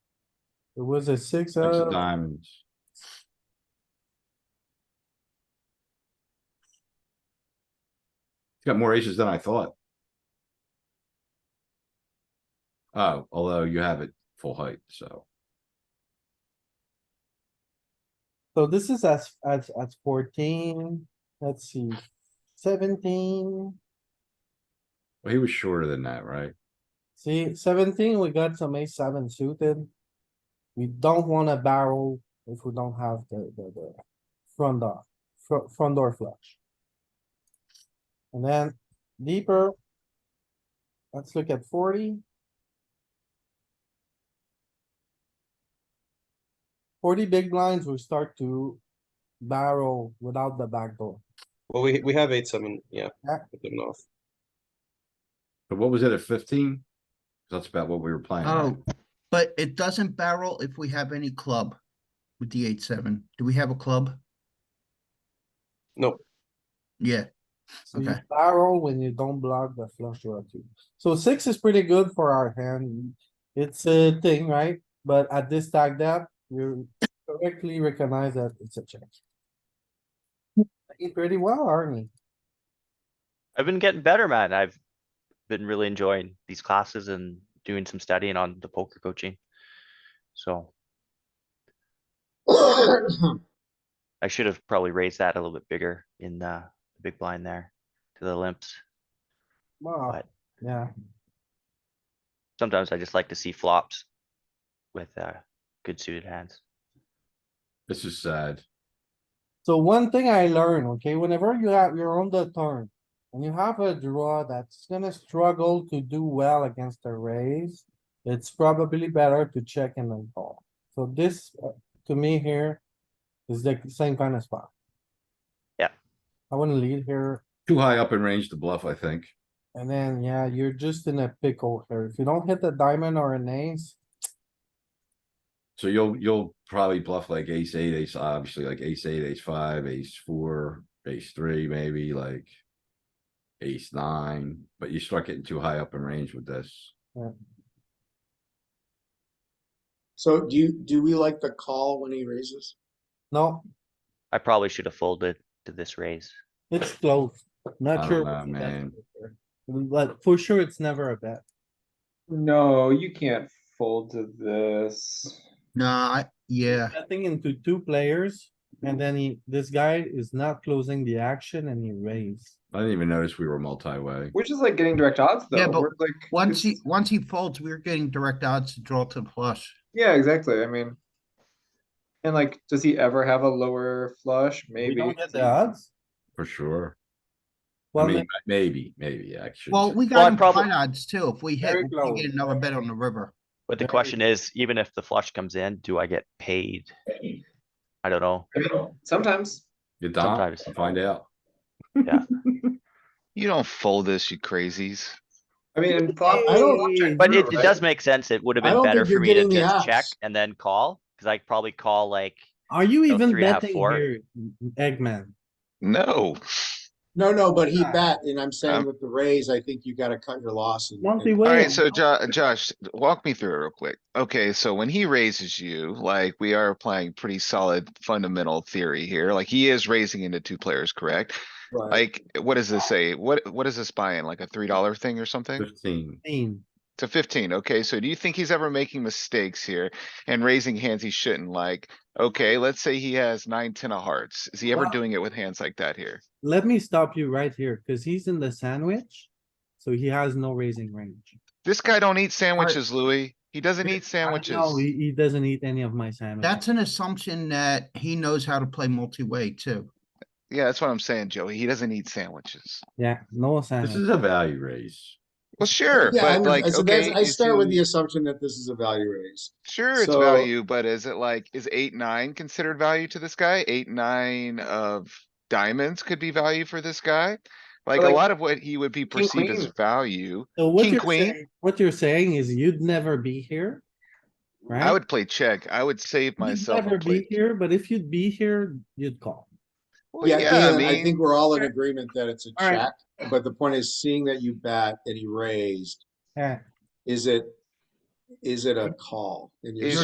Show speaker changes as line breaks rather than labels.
It was a six uh,
six of
of,
diamonds. He's Got more aces than I thought. Oh, although you have it full height, so
so this is as, as, as fourteen, let's see, seventeen.
well, he was shorter than that, right?
See, seventeen, we got some ace seven suited. We don't wanna barrel if we don't have the, the, the front door, front, front door flush. And then deeper. Let's look at forty. Forty big blinds, we start to barrel without the back door.
Well, we, we have eight, seven, yeah.
Yeah.
with them off.
But what was it at fifteen? That's about what we were playing. right?
Oh, but it doesn't barrel if we have any club with the eight, seven. Do we have a club?
No,
Yeah,
So you
Okay.
barrel when you don't block the flush draw too. So six is pretty good for our hand. It's a thing, right? But at this stack depth, you correctly recognize that it's a check. Playing Pretty well, Arnie.
I've been getting better, man. I've been really enjoying these classes and doing some studying on the poker coaching. So. I should have probably raised that a little bit bigger in the the big blind there to the limps.
Wow,
Right.
yeah,
Sometimes I just like to see flops with uh good suited hands.
This is sad.
so one thing I learned, okay, whenever you have, you're on the turn. And you have a draw that's gonna struggle to do well against a raise. It's probably better to check and then call. So this, uh, to me here, is the same kind of spot.
Yeah.
I wanna lead here,
Too high up in range to bluff, I think.
and then, yeah, you're just in a pickle here. If you don't hit the diamond or an ace,
So you'll, you'll probably bluff like ace eight, ace, obviously like ace eight, ace five, ace four, ace three, maybe like. Ace nine, but you start getting too high up in range with this.
So do you, do we like the call when he raises?
no,
I probably should have folded to this raise.
it's close.
I
Not
don't
sure.
know,
what's the bet
man.
for sure. But for sure, it's never a bet.
No, you can't fold to this.
no, I, yeah,
Betting into two players, and then he, this guy is not closing the action and he raised.
I didn't even notice we were multi-way.
Which is like getting direct odds though.
Yeah, but
We're, like,
once he,
it's-
once he folds, we're getting direct odds to draw to the flush.
Yeah, exactly. I mean. And like, does he ever have a lower flush?
We
Maybe.
don't get the odds.
For sure. I
Well,
mean,
then
maybe, maybe, actually.
Well, we
Well, I
got him
probably-
fine odds too. If we hit,
Very
we
close.
get another bet on the river.
But the
Very
question is, even if the flush comes in, do I get paid? I don't know.
I mean, Sometimes.
You don't,
sometimes.
find out.
You don't fold this, you crazies.
I mean, and flop.
I don't-
check
But it,
through,
it
right?
does make sense. It would have
I
been
don't
better
think
for
you're
me to
getting the
just check
axe.
and then call, cause I'd probably call like,
are you
So
even
three and a half,
betting
four.
here, Eggman?
No,
No, no, but he
Yeah.
bet, and I'm saying
Um,
with the raise, I think you gotta cut your losses.
Monty
alright,
Williams,
so Jo- Josh, walk me through it real quick. Okay, so when he raises you, like, we are applying pretty solid fundamental theory here, like, he is raising into two players, correct?
uh,
Like, what does this say? What, what is this buying? Like a three dollar thing or something?
Fifteen.
team.
To fifteen, okay, so do you think he's ever making mistakes here and raising hands he shouldn't, like, okay, let's say he has nine, ten of hearts, is he ever
Well-
doing it with hands like that here?
let me stop you right here, cause he's in the sandwich, so he has no raising range.
This guy don't eat sandwiches, Louis, he doesn't
Yeah,
eat
No,
sandwiches.
he, he doesn't eat any of my sandwiches.
That's an assumption that he knows how to play multi-way too.
Yeah, that's what I'm saying, Joey, he doesn't eat sandwiches.
Yeah, no
This
sandwich.
is a value raise.
Well, sure,
Yeah, I
but like,
would- so that's-
okay.
I
is
start with
he-
the assumption that this is a value raise.
Sure, it's
so-
value, but is it like, is eight, nine considered value to this guy? Eight, nine of diamonds could be value for this guy? Like, a
like,
lot of what he would be perceived as
queen.
value,
So what
King,
you're
queen.
saying, what you're saying is you'd never be here, right?
I would play check. I would save
You'd
myself.
never
and
be
play-
here, but if you'd be here, you'd call.
Well,
Yeah,
Yeah, I
Dan, I
mean,
think we're all in agreement that it's a
All right.
check, but the point is seeing that you bet and he raised,
Yeah.
is it, is it a call? And you're
Is